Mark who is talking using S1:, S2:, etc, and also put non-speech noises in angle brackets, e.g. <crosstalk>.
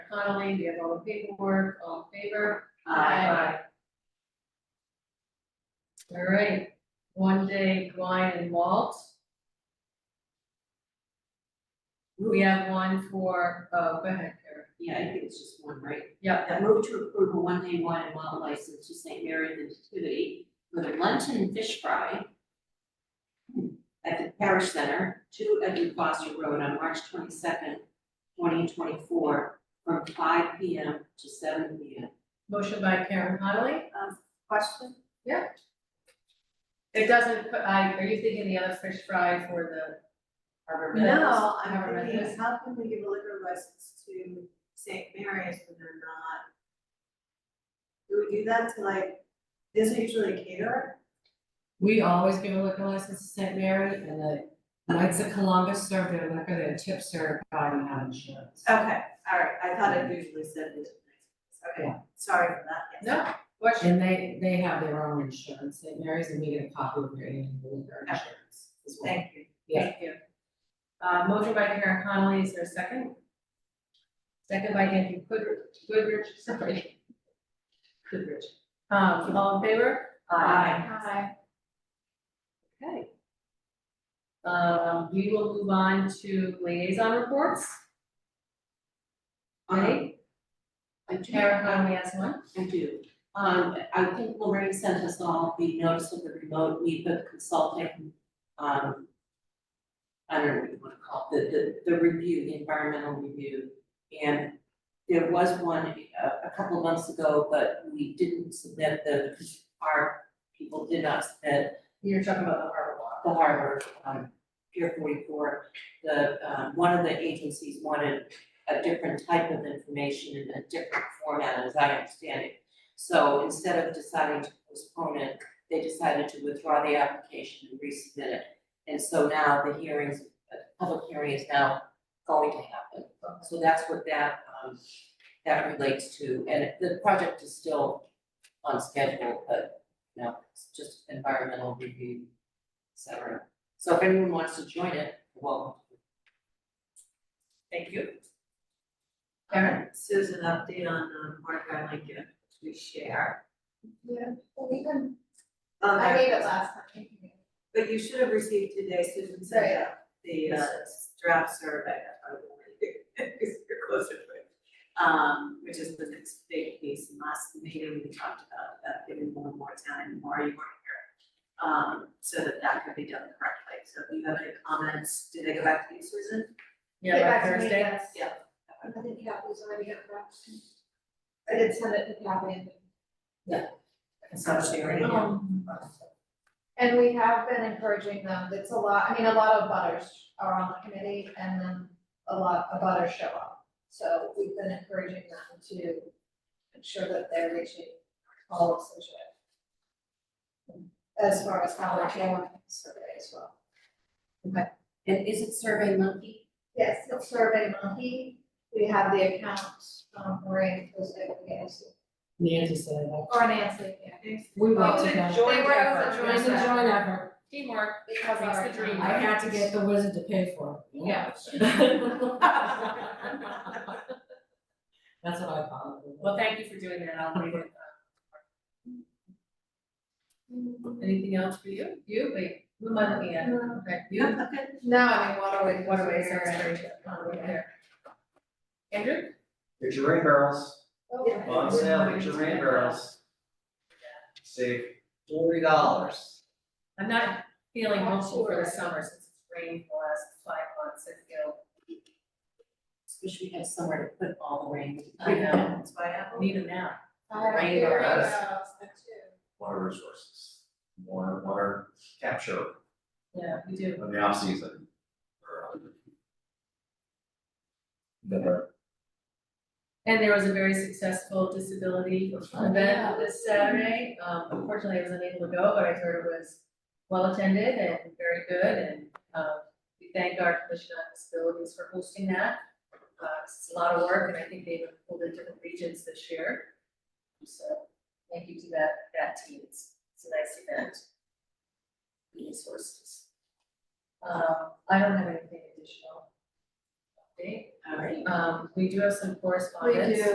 S1: Connolly, we have all the paperwork, all in favor?
S2: Aye.
S1: All right, one day wine and malt. We have one for, uh, go ahead, Karen.
S2: Yeah, I think it's just one, right?
S1: Yeah,
S2: I move to approve a one-day wine and malt license to St. Mary of the Nativity with a luncheon fish fry at the Parish Center, two Edwin Foster Road on March twenty-second, twenty twenty-four, from five P M to seven P M.
S1: motion by Karen Connolly.
S2: Question?
S1: It doesn't, put- I, are you thinking the other fish fry for the Harbor Meadows?
S3: No,
S1: Harbor
S3: I'm
S1: Meadows?
S3: thinking, how can we give a liquor license to St. Mary's when they're not? Do we do that to like, isn't it usually a caterer?
S4: We always give a liquor license to St. Mary and the Knights of Columbus serve their liquor, their tips are by and out insurance.
S3: Okay, all right, I thought it usually said it. Okay, sorry for that, yes.
S1: No, question,
S4: And they, they have their own insurance, St. Mary's, and we get a copy of their annual liquor
S3: Okay.
S4: insurance as well.
S3: Thank you.
S1: thank you. Uh, motion by Karen Connolly, is there a second? Second by Andrew Goodrich, Goodrich, sorry. Goodrich. Um, all in favor?
S3: Aye.
S1: Okay. Um, we will move on to liaison reports,
S2: Um,
S1: right?
S2: I do-
S1: Karen Connolly has one.
S2: I do. Um, I think Lorraine sent us all the notice of the remote NEPA consulting, um, I don't know what you wanna call it, the, the, the review, the environmental review. And there was one a, a couple of months ago, but we didn't submit the, our people did not submit
S1: You're talking about the harbor law.
S2: the harbor, um, Pier forty-four, the, um, one of the agencies wanted a different type of information in a different format, as I understand it. So instead of deciding to postpone it, they decided to withdraw the application and resubmit it. And so now the hearings, the public hearing is now going to happen. So that's what that, um, that relates to, and the project is still on schedule, but, you know, it's just environmental review, et cetera. So if anyone wants to join it, welcome. Thank you.
S1: Karen?
S3: Susan, update on, um, Mark Island Lincoln, which we share.
S5: Yeah, well, we can,
S3: Um,
S5: I gave it last time.
S3: But you should have received today, Susan sent out the uh, draft survey, that's why we're, because you're closer to <laughs> it. Um, which is the next big piece, and last meeting, we talked about that, giving more and more time, more you weren't here. Um, so that that could be done correctly, so if you have any comments, did they go back to you, Susan?
S1: Yeah,
S5: Get back
S1: by
S5: to me,
S1: Thursday?
S5: yes.
S3: Yeah.
S5: I think that was already got wrapped. I did send it to Kathy.
S3: So sharing, yeah.
S5: Um, And we have been encouraging them, it's a lot, I mean, a lot of butters are on the committee and then a lot of butters show up. So we've been encouraging them to ensure that they're reaching all of Situate. As far as how they're doing survey as well.
S2: And is it Survey Monkey?
S5: Yes, it's survey monkey, we have the accounts, um, Maureen was able to get us,
S4: Nancy said that.
S5: or Nancy, yeah.
S4: We went
S1: Oh,
S4: to
S1: they
S4: that.
S1: joined
S5: They were
S1: effort.
S5: also
S4: It was a joint effort.
S1: Teamwork.
S5: Because
S1: Makes
S5: our
S1: the dream
S5: town-
S4: I had to get the wizard to pay for it.
S1: Yeah.
S4: <laughs> That's what I call it.
S1: Well, thank you for doing that, I'll leave it. Anything else for you? You, wait, who am I looking at?
S5: No,
S1: Okay,
S3: You
S1: you,
S3: okay?
S5: I mean, waterways.
S1: waterways are
S5: are-
S1: great, um, right there. Andrew?
S6: Get your rain barrels,
S5: Yeah.
S6: on sale, get your rain barrels. Save forty dollars.
S1: I'm not feeling hopeful for the summer since it's rained the last five months, I feel,
S2: Wish we had somewhere to put all the rain.
S1: I know.
S3: That's why I.
S1: need it now.
S5: I have a
S1: Rain
S5: few
S6: barrels.
S5: rainbows, that too.
S6: Water resources, water, water capture
S1: Yeah, we do.
S6: in the off season. or, um, The,
S1: And there was a very successful disability
S6: That's right.
S1: event this Saturday. Um, unfortunately, I was unable to go, but I heard it was well attended and very good and, um, we thank our Commission on Disabilities for hosting that. Uh, it's a lot of work and I think they've pulled in different regions this year. So thank you to that, that team. It's, it's a nice event. Resources. Um, I don't have anything additional. update.
S3: All right.
S1: Um, we do have some correspondence.
S5: We do.